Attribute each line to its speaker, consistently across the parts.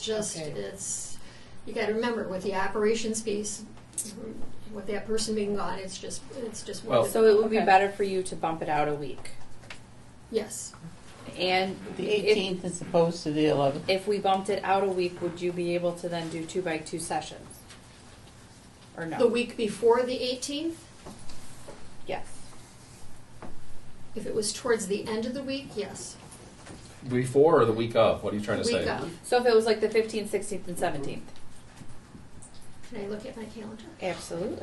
Speaker 1: just,
Speaker 2: Okay.
Speaker 1: it's, you gotta remember with the operations piece, with that person being gone, it's just, it's just. one
Speaker 3: Well-
Speaker 1: of the-
Speaker 2: So it would be
Speaker 4: Okay.
Speaker 2: better for you to bump it out a week.
Speaker 1: Yes,
Speaker 2: And
Speaker 4: The
Speaker 2: if-
Speaker 4: eighteenth as opposed to the eleventh.
Speaker 2: If we bumped it out a week, would you be able to then do two by two sessions? Or no?
Speaker 1: the week before the eighteenth,
Speaker 2: Yes.
Speaker 1: if it was towards the end of the week, yes.
Speaker 3: Before or the week of? What are you trying to
Speaker 1: Week
Speaker 3: say?
Speaker 1: of,
Speaker 2: So if it was like the fifteenth, sixteenth, and seventeenth?
Speaker 1: can I look at my calendar?
Speaker 2: Eh, Absolutely.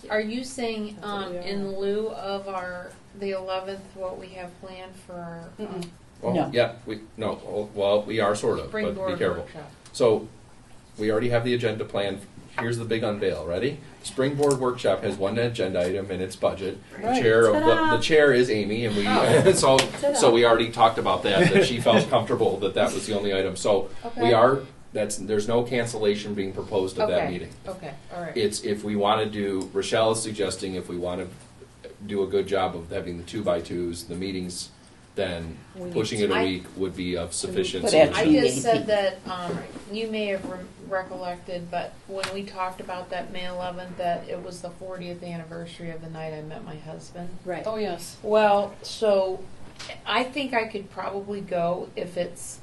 Speaker 1: Thank you.
Speaker 5: Are you saying,
Speaker 2: That's what
Speaker 5: um,
Speaker 2: we are.
Speaker 5: in lieu of our, the eleventh, what we have planned for um,
Speaker 2: Mm-mm.
Speaker 3: Well,
Speaker 4: No.
Speaker 3: Oh, Yeah, we, no, oh, well, we are sort of, but be
Speaker 5: springboard
Speaker 3: careful.
Speaker 5: workshop?
Speaker 3: So, we already have the agenda planned. Here's the big unveil. Ready? Springboard Workshop has one agenda item in its budget. The
Speaker 4: Right.
Speaker 3: chair of
Speaker 2: Ta-da.
Speaker 3: the, the chair is Amy, and we
Speaker 5: Oh.
Speaker 3: so
Speaker 2: Ta-da.
Speaker 3: so we already talked about that. That she felt comfortable that that was the only item. So we
Speaker 5: Okay.
Speaker 3: are that's there's no cancellation being proposed of that
Speaker 5: Okay.
Speaker 3: meeting.
Speaker 5: Okay, all right.
Speaker 3: It's if we want to do, Rochelle is suggesting if we want to do a good job of having the two by twos, the meetings, then
Speaker 2: We need
Speaker 3: pushing
Speaker 2: to-
Speaker 3: it a
Speaker 5: I-
Speaker 3: week would be of sufficient
Speaker 4: But actually-
Speaker 5: I
Speaker 3: solution.
Speaker 5: just said that, um, you may have re- recollected, but when we talked about that May eleventh, that it was the fortieth anniversary of the night I met my husband.
Speaker 2: Right.
Speaker 4: Oh, yes.
Speaker 5: Well, so I think I could probably go if it's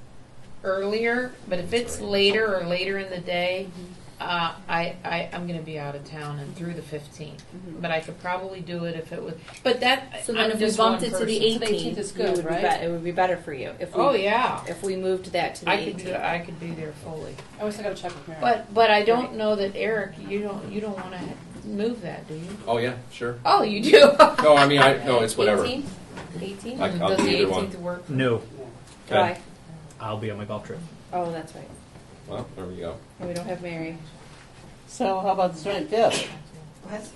Speaker 5: earlier, but if it's later or later in the day,
Speaker 2: Mm-hmm.
Speaker 5: uh, I, I I'm going to be out of town and through the 15th.
Speaker 2: Mhm.
Speaker 5: But I could probably do it if it was. But that
Speaker 2: So then
Speaker 5: I'm
Speaker 2: if we
Speaker 5: just
Speaker 2: bumped
Speaker 5: one
Speaker 2: it to the
Speaker 5: person.
Speaker 4: So the 18th
Speaker 2: eighteenth,
Speaker 4: is
Speaker 2: it
Speaker 4: good,
Speaker 2: would be
Speaker 4: right?
Speaker 2: bet- it would be better for you if we.
Speaker 5: Oh yeah,
Speaker 2: If we moved that to the
Speaker 5: I could do,
Speaker 2: eighteenth.
Speaker 5: I could be there fully.
Speaker 4: I always gotta check with Mary.
Speaker 5: But but I don't
Speaker 2: Right.
Speaker 5: know that Eric. You don't you don't want to move that, do you?
Speaker 3: Oh, yeah, sure.
Speaker 5: Oh, you do.
Speaker 3: No, I mean, I, no, it's whatever.
Speaker 2: Eighteenth? Eighteenth?
Speaker 3: I- I'll
Speaker 5: Does
Speaker 3: do
Speaker 5: the
Speaker 3: either one.
Speaker 5: 18th work?
Speaker 6: No,
Speaker 3: Okay.
Speaker 2: Why?
Speaker 6: I'll be on my golf trip.
Speaker 2: Oh, that's right.
Speaker 3: Well, there we go.
Speaker 2: And we don't have Mary.
Speaker 4: So how about the twenty-fifth?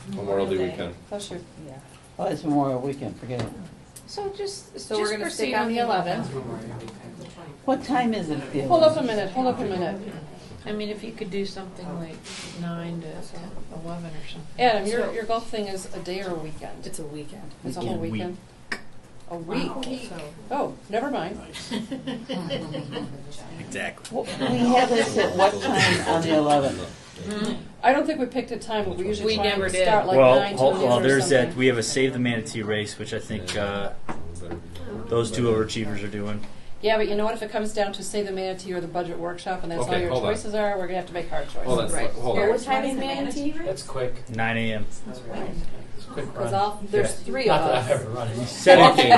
Speaker 3: Memorial Day weekend.
Speaker 4: That's your.
Speaker 2: Yeah.
Speaker 4: Oh, it's Memorial Weekend, forget it.
Speaker 5: So just
Speaker 2: So we're
Speaker 5: just
Speaker 2: gonna
Speaker 5: proceed
Speaker 2: stick on the eleventh.
Speaker 4: What time is it? at the
Speaker 7: Hold up a
Speaker 4: 11th?
Speaker 7: minute, hold up a minute.
Speaker 5: I mean, if you could do something like nine to eleven or something.
Speaker 7: Adam, your, your golf thing is a day or a weekend?
Speaker 2: It's a weekend.
Speaker 7: It's a whole weekend?
Speaker 6: Weekend.
Speaker 7: A week? Oh, never mind.
Speaker 6: Exactly.
Speaker 4: Well, We have this at what time on the eleventh?
Speaker 3: Mm-hmm.
Speaker 7: I don't think we picked a time, but we usually
Speaker 5: We
Speaker 7: try
Speaker 5: never
Speaker 7: and
Speaker 5: did.
Speaker 7: start like
Speaker 6: well,
Speaker 7: nine to
Speaker 6: hold,
Speaker 7: noon
Speaker 6: well,
Speaker 7: or
Speaker 6: there's that.
Speaker 7: something.
Speaker 6: We have a save the manatee race, which I think uh,
Speaker 3: Mm-hmm.
Speaker 6: those two overachievers are doing.
Speaker 7: Yeah, but you know what, if it comes down to say the manatee or the budget workshop and that's all
Speaker 3: Okay,
Speaker 7: your
Speaker 3: hold on.
Speaker 7: choices are, we're gonna have to make hard
Speaker 3: Hold on,
Speaker 7: choices.
Speaker 2: Right.
Speaker 3: hold
Speaker 7: Here.
Speaker 3: on.
Speaker 2: What time is Manatee?
Speaker 8: That's quick.
Speaker 6: 9 a.m.
Speaker 8: It's a quick
Speaker 2: Cause
Speaker 8: run.
Speaker 2: all, there's
Speaker 6: Yeah.
Speaker 2: three of
Speaker 8: Not that I've
Speaker 2: us.
Speaker 8: ever run it.
Speaker 6: Seventeen.
Speaker 8: You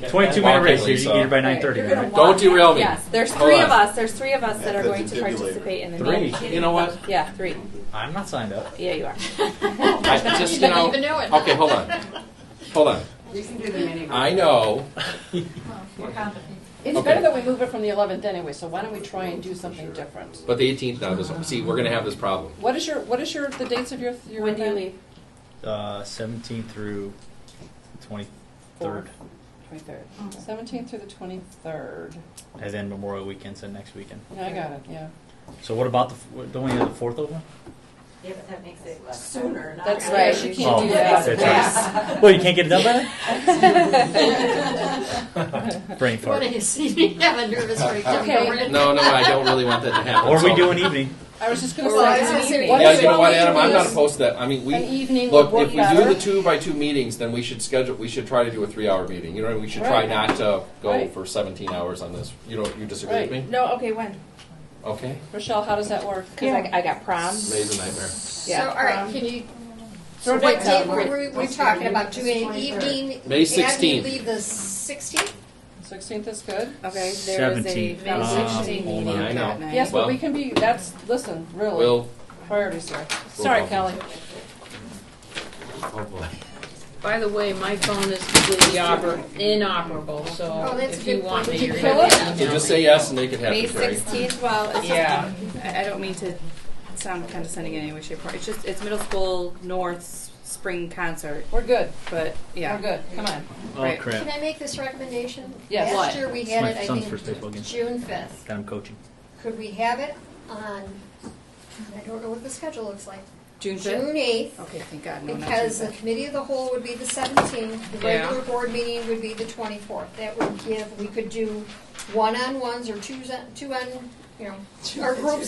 Speaker 8: got
Speaker 6: 22
Speaker 8: that
Speaker 6: minute race.
Speaker 3: Walking,
Speaker 6: You can get here by
Speaker 2: Right.
Speaker 6: 9:30.
Speaker 2: You're gonna
Speaker 6: right?
Speaker 2: walk-
Speaker 3: Don't derail me.
Speaker 2: Yes, there's
Speaker 3: Hold
Speaker 2: three
Speaker 3: on.
Speaker 2: of us, there's three of us that are
Speaker 9: That's a
Speaker 2: going to
Speaker 9: defibrillator.
Speaker 2: participate in the meeting.
Speaker 3: Three. You know what?
Speaker 2: Yeah, three.
Speaker 6: I'm not signed up.
Speaker 2: Yeah, you are.
Speaker 3: I just,
Speaker 1: You
Speaker 3: you know.
Speaker 1: don't even know it.
Speaker 3: Okay, hold on. Hold on. I know.
Speaker 7: It's
Speaker 3: Okay.
Speaker 7: better that we move it from the eleventh anyway, so why don't we try and do something different?
Speaker 3: But the 18th now doesn't. See, we're going to have this problem.
Speaker 7: What is your, what is your, the dates of your, your
Speaker 2: When do you
Speaker 7: event?
Speaker 2: leave?
Speaker 6: Uh, 17 through 23rd,
Speaker 2: Twenty-third.
Speaker 7: Seventeenth through the twenty-third.
Speaker 6: and then Memorial Weekend's the next weekend.
Speaker 7: I got it, yeah.
Speaker 6: So what about the? f- what- Don't we have the fourth open?
Speaker 10: Yeah, but that makes it sooner, not.
Speaker 7: That's
Speaker 10: after.
Speaker 7: right, you
Speaker 6: Oh,
Speaker 7: can't do that.
Speaker 6: that's right. Well, you can't get it done by then. Brain
Speaker 1: You wanna
Speaker 6: fart.
Speaker 1: see me have a nervous breakdown?
Speaker 7: Okay.
Speaker 1: don't worry.
Speaker 3: No, no, I don't really want that to happen.
Speaker 6: Or we
Speaker 3: so-
Speaker 6: do an e- evening.
Speaker 7: I was just gonna
Speaker 2: Or I was gonna
Speaker 7: say,
Speaker 2: say,
Speaker 7: what
Speaker 3: Yeah,
Speaker 7: is
Speaker 3: you know
Speaker 7: wrong
Speaker 3: what,
Speaker 7: with
Speaker 3: Adam? I'm not
Speaker 7: this?
Speaker 3: opposed to that. I mean, we
Speaker 7: An evening
Speaker 3: look. If
Speaker 7: would
Speaker 3: we
Speaker 7: work
Speaker 3: do the
Speaker 7: better.
Speaker 3: two by two meetings, then we should schedule. We should try to do a three-hour meeting. You know, what I mean? we should try
Speaker 7: Right.
Speaker 3: not to go
Speaker 7: Right.
Speaker 3: for 17 hours on this. You don't. You disagree with
Speaker 7: Right.
Speaker 3: me?
Speaker 2: No, okay, when?
Speaker 3: Okay.
Speaker 7: Rochelle, how does that work?
Speaker 2: Cause I, I got prom.
Speaker 3: May's a nightmare.
Speaker 1: So,
Speaker 2: Yeah. Um,
Speaker 1: all right,
Speaker 2: prom.
Speaker 1: can you,
Speaker 7: Throw
Speaker 1: so what
Speaker 7: dates
Speaker 1: date
Speaker 7: out.
Speaker 1: were we, we're talking about, doing an evening?
Speaker 3: May
Speaker 1: And
Speaker 3: 16th.
Speaker 1: we leave the sixteenth?
Speaker 7: Sixteenth is good.
Speaker 2: Okay, there is a
Speaker 6: 17th.
Speaker 2: May
Speaker 6: Um,
Speaker 2: sixteenth
Speaker 3: hold
Speaker 2: meeting
Speaker 3: on, I know.
Speaker 2: that night.
Speaker 7: Yes,
Speaker 3: Well-
Speaker 7: but we can be, that's, listen, really,
Speaker 3: We'll.
Speaker 7: priorities here. Sorry,
Speaker 3: go.
Speaker 7: Kelly.
Speaker 3: Oh boy.
Speaker 5: By the way, my phone is completely oper- inoperable, so
Speaker 1: Oh, that's
Speaker 5: if
Speaker 1: a
Speaker 5: you
Speaker 1: good
Speaker 5: want
Speaker 1: point. Did
Speaker 5: me, you're
Speaker 1: you
Speaker 5: gonna
Speaker 7: kill
Speaker 5: have to
Speaker 3: So
Speaker 5: email
Speaker 3: just
Speaker 5: me.
Speaker 3: say yes and make it happen,
Speaker 2: May
Speaker 3: Terry.
Speaker 2: sixteenth, well, it's
Speaker 5: Yeah.
Speaker 2: just, I, I don't mean to sound condescending in any way, shape, or form. It's just, it's middle school North's spring concert,
Speaker 7: We're good,
Speaker 2: but yeah.
Speaker 7: we're good, come on.
Speaker 6: Oh
Speaker 2: Right.
Speaker 1: Can
Speaker 6: crap!
Speaker 1: I make this recommendation?
Speaker 7: Yes.
Speaker 1: Last
Speaker 2: What?
Speaker 1: year, we
Speaker 6: It's
Speaker 1: had
Speaker 6: my
Speaker 1: it, I
Speaker 6: son's first baseball
Speaker 1: think,
Speaker 6: game.
Speaker 1: June fifth.
Speaker 6: That I'm coaching.
Speaker 1: Could we have it on, I don't know what the schedule looks like,
Speaker 2: June
Speaker 1: June
Speaker 2: fifth?
Speaker 1: eighth?
Speaker 2: Okay, thank God, no, not June
Speaker 1: Because the
Speaker 2: fifth.
Speaker 1: committee of the whole would be the seventeenth, the
Speaker 5: Yeah.
Speaker 1: regular board meeting would be the twenty-fourth. That would give, we could do one-on-ones or twos, on- two on, you know, our groups